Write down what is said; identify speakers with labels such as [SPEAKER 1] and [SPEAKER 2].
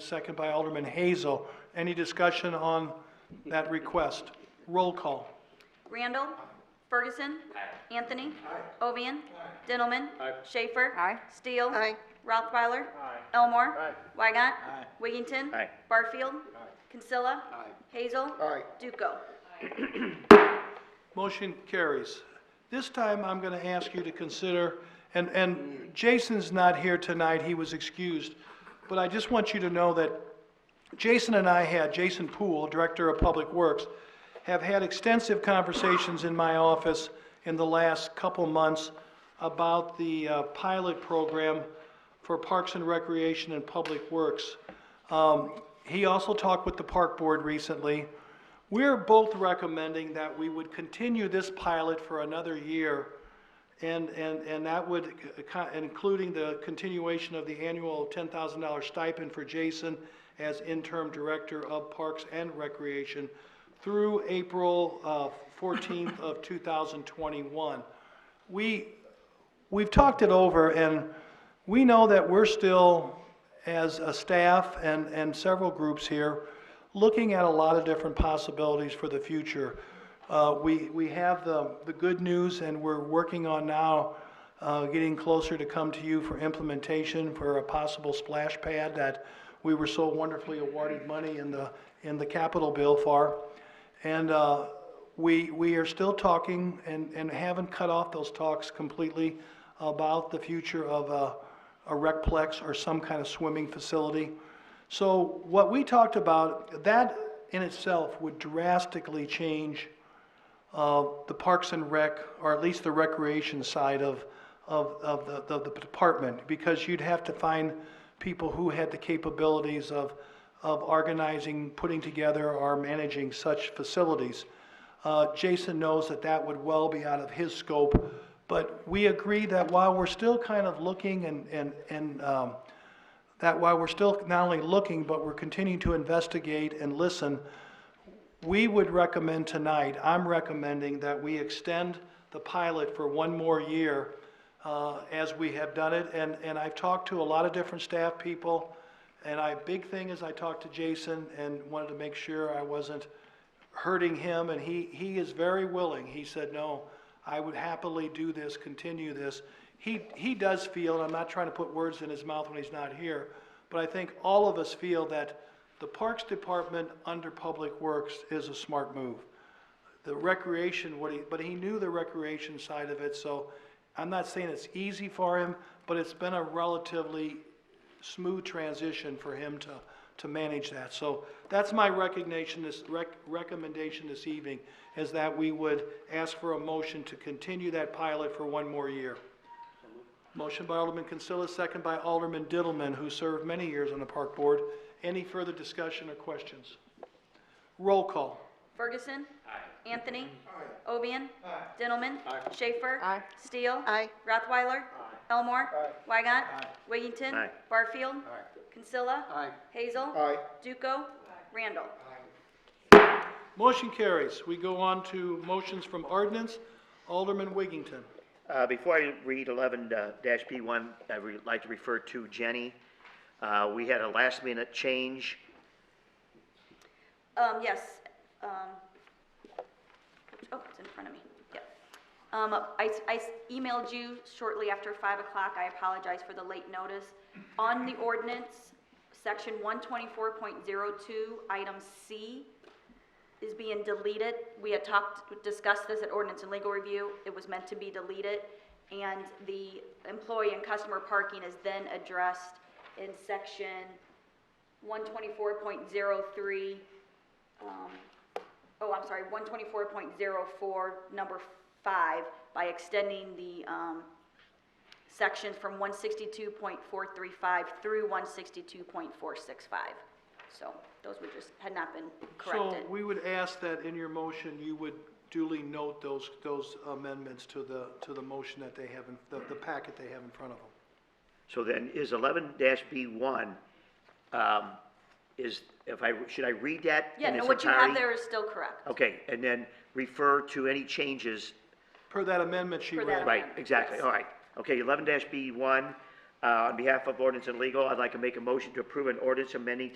[SPEAKER 1] second by Alderman Hazel. Any discussion on that request? Roll call.
[SPEAKER 2] Randall. Ferguson. Anthony. Ovian. Dintelman. Schaefer. Steele. Rothweiler. Elmore. Weigant. Wiggington. Barfield. Kinsella. Hazel. Duco.
[SPEAKER 1] Motion carries. This time, I'm going to ask you to consider, and, and Jason's not here tonight, he was excused, but I just want you to know that Jason and I had, Jason Poole, Director of Public Works, have had extensive conversations in my office in the last couple months about the uh, pilot program for Parks and Recreation and Public Works. Um, He also talked with the Park Board recently. We're both recommending that we would continue this pilot for another year, and, and, and that would, c- co- including the continuation of the annual $10,000 stipend for Jason as interim director of Parks and Recreation through April uh, 14th of 2021. We, we've talked it over, and we know that we're still, as a staff and, and several groups here, looking at a lot of different possibilities for the future. Uh, we, we have the, the good news, and we're working on now, uh, getting closer to come to you for implementation for a possible splash pad that we were so wonderfully awarded money in the, in the capital bill for. And, uh, we, we are still talking and, and haven't cut off those talks completely about the future of a, a recplex or some kind of swimming facility. So what we talked about, that in itself would drastically change uh, the Parks and Rec, or at least the recreation side of, of, of the, of the department, because you'd have to find people who had the capabilities of, of organizing, putting together, or managing such facilities. Uh, Jason knows that that would well be out of his scope, but we agree that while we're still kind of looking and, and, and, um, that while we're still not only looking, but we're continuing to investigate and listen, we would recommend tonight, I'm recommending that we extend the pilot for one more year uh, as we have done it. And, and I've talked to a lot of different staff people, and I, big thing is I talked to Jason and wanted to make sure I wasn't hurting him, and he, he is very willing. He said, no, I would happily do this, continue this. He, he does feel, and I'm not trying to put words in his mouth when he's not here, but I think all of us feel that the Parks Department under Public Works is a smart move. The recreation, what he, but he knew the recreation side of it, so I'm not saying it's easy for him, but it's been a relatively smooth transition for him to, to manage that. So that's my recognition, this rec, recommendation this evening, is that we would ask for a motion to continue that pilot for one more year. Motion by Alderman Consilla, second by Alderman Diddleman, who served many years on the Park Board. Any further discussion or questions? Roll call.
[SPEAKER 2] Ferguson. Anthony. Ovian. Dintelman. Schaefer. Steele. Rothweiler. Elmore. Weigant. Wiggington. Barfield. Kinsella. Hazel. Duco. Randall.
[SPEAKER 1] Motion carries. We go on to motions from ordinance. Alderman Wiggington.
[SPEAKER 3] Uh, Before I read eleven uh, dash P one, I would like to refer to Jenny. Uh, We had a last minute change.
[SPEAKER 2] Um, yes, um, oh, it's in front of me, yeah. Um, I, s- I s- emailed you shortly after five o'clock, I apologize for the late notice. On the ordinance, section one twenty-four point zero two, item C is being deleted. We had talked, discussed this at ordinance and legal review, it was meant to be deleted. And the employee and customer parking is then addressed in section one twenty-four point zero three, um, oh, I'm sorry, one twenty-four point zero four, number five, by extending the, um, sections from one sixty-two point four three five through one sixty-two point four six five. So those were just, had not been corrected.
[SPEAKER 1] So we would ask that in your motion, you would duly note those, those amendments to the, to the motion that they have, in the, the packet they have in front of them.
[SPEAKER 3] So then is eleven dash B one, um, is, if I, should I read that
[SPEAKER 2] Yeah,
[SPEAKER 3] in
[SPEAKER 2] no,
[SPEAKER 3] its
[SPEAKER 2] what you have
[SPEAKER 3] entirety?
[SPEAKER 2] there is still correct.
[SPEAKER 3] Okay, and then refer to any changes
[SPEAKER 1] Per that amendment she
[SPEAKER 2] Per
[SPEAKER 1] read.
[SPEAKER 2] that
[SPEAKER 3] Right,
[SPEAKER 2] amendment,
[SPEAKER 3] exactly,
[SPEAKER 2] yes.
[SPEAKER 3] all right. Okay, uh, eleven B one, on behalf of ordinance and legal, I'd like to make a motion to approve an ordinance amending